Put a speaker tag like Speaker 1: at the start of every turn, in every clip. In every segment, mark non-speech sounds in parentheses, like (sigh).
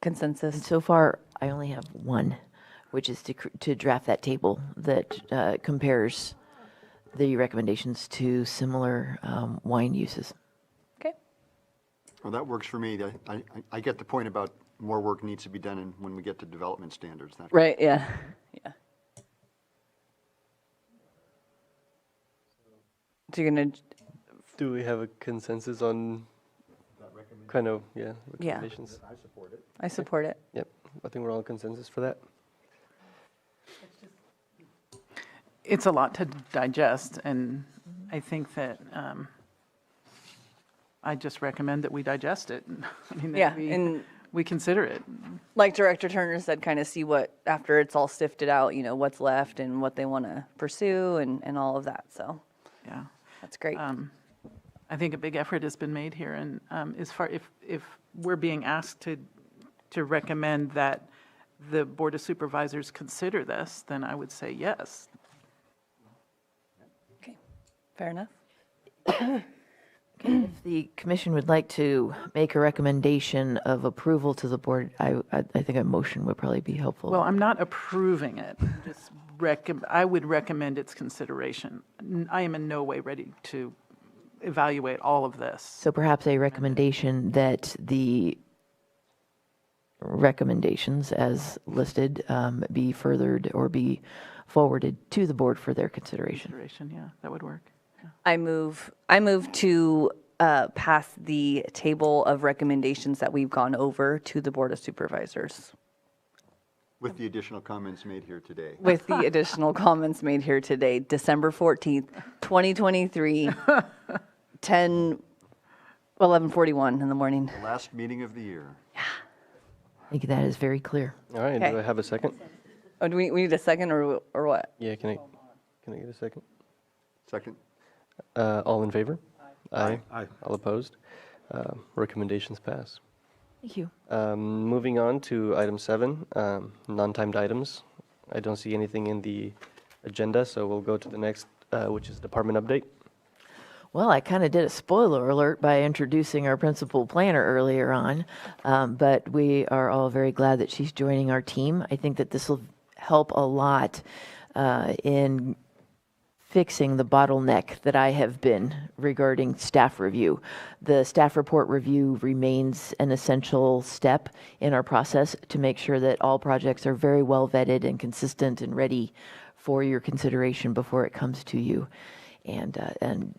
Speaker 1: consensus?
Speaker 2: So far, I only have one, which is to, cr- to draft that table that uh, compares the recommendations to similar um, wine uses.
Speaker 1: Okay.
Speaker 3: Well, that works for me. I- I, I get the point about more work needs to be done and when we get to development standards. that-
Speaker 1: Right, yeah, yeah. So you're gonna,
Speaker 4: Do we have a consensus on kind of, yeah,
Speaker 1: Yeah.
Speaker 4: recommendations?
Speaker 1: I support it.
Speaker 4: Yep, I think we're all consensus for that.
Speaker 5: it's a lot to digest, and I think that um, I just recommend that we digest it. (laughs) I mean, that
Speaker 1: Yeah,
Speaker 5: we-
Speaker 1: and-
Speaker 5: We consider it.
Speaker 1: Like Director Turner said, kind of see what, after it's all sifted out, you know, what's left and what they want to pursue and, and all of that, so
Speaker 5: Yeah.
Speaker 1: that's great.
Speaker 5: I think a big effort has been made here, and um, as far, if, if we're being asked to, to recommend that the Board of Supervisors consider this, then I would say yes.
Speaker 1: Okay, fair enough.
Speaker 2: If the commission would like to make a recommendation of approval to the board, I, I, I think a motion would probably be helpful.
Speaker 5: Well, I'm not approving it, I'm just recom, I would recommend its consideration. N- I am in no way ready to evaluate all of this.
Speaker 2: So perhaps a recommendation that the recommendations as listed um, be furthered or be forwarded to the board for their consideration.
Speaker 5: Consideration, yeah, that would work.
Speaker 1: I move, I move to uh, pass the table of recommendations that we've gone over to the Board of Supervisors
Speaker 3: With the additional comments made here today.
Speaker 1: with the additional comments made here today, December 14th, 2023, (laughs) 10, 11:41 in the morning.
Speaker 3: Last meeting of the year.
Speaker 2: I think that is very clear.
Speaker 4: All right,
Speaker 1: Okay.
Speaker 4: do I have a second?
Speaker 1: Oh, do we, we need a second or, or what?
Speaker 4: Yeah, can I, can I get a second?
Speaker 3: Second?
Speaker 4: Uh, all in favor? Aye.
Speaker 3: Aye.
Speaker 4: All opposed? Um, Recommendations pass.
Speaker 2: Thank you.
Speaker 4: Um, Moving on to item seven, um, non-timed items. I don't see anything in the agenda, so we'll go to the next, uh, which is department update.
Speaker 2: Well, I kind of did a spoiler alert by introducing our principal planner earlier on, um, but we are all very glad that she's joining our team. I think that this will help a lot uh, in fixing the bottleneck that I have been regarding staff review. The staff report review remains an essential step in our process to make sure that all projects are very well vetted and consistent and ready for your consideration before it comes to you. And, uh, and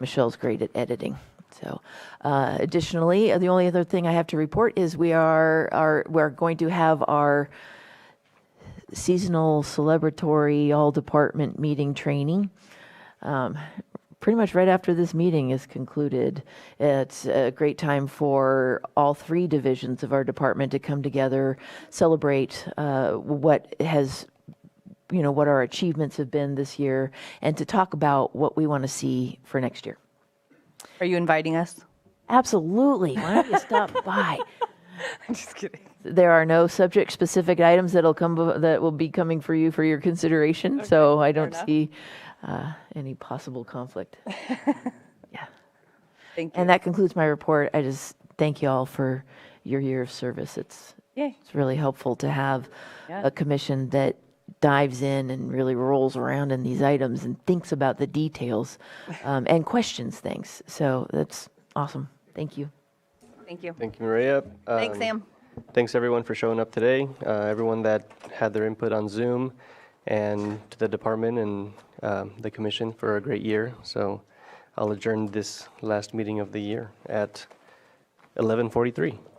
Speaker 2: Michelle's great at editing. So, uh, additionally, uh, the only other thing I have to report is we are, are we're going to have our seasonal celebratory all department meeting training. Um, pretty much right after this meeting is concluded, it's a great time for all three divisions of our department to come together, celebrate uh, what has you know what our achievements have been this year and to talk about what we want to see for next year
Speaker 1: Are you inviting us?
Speaker 2: absolutely why don't you stop by
Speaker 1: (laughs) I'm just kidding.
Speaker 2: there are no subject specific items that'll come bef- that will be coming for you for your consideration so i don't
Speaker 1: enough.
Speaker 2: see uh, any possible conflict yeah
Speaker 1: Thank you.
Speaker 2: and that concludes my report i just thank you all for your year of service it's
Speaker 1: Yay.
Speaker 2: it's really helpful to have
Speaker 1: Yeah.
Speaker 2: a commission that dives in and really rolls around in these items and thinks about the details
Speaker 1: (laughs)
Speaker 2: um, and questions things. So that's awesome. Thank you.
Speaker 1: Thank you.
Speaker 4: Thank you, Maria.
Speaker 1: Thanks,
Speaker 4: Um,
Speaker 1: Sam.
Speaker 4: Thanks, everyone, for showing up today, uh, everyone that had their input on Zoom, and to the department and um, the commission for a great year. So I'll adjourn this last meeting of the year at 11:43.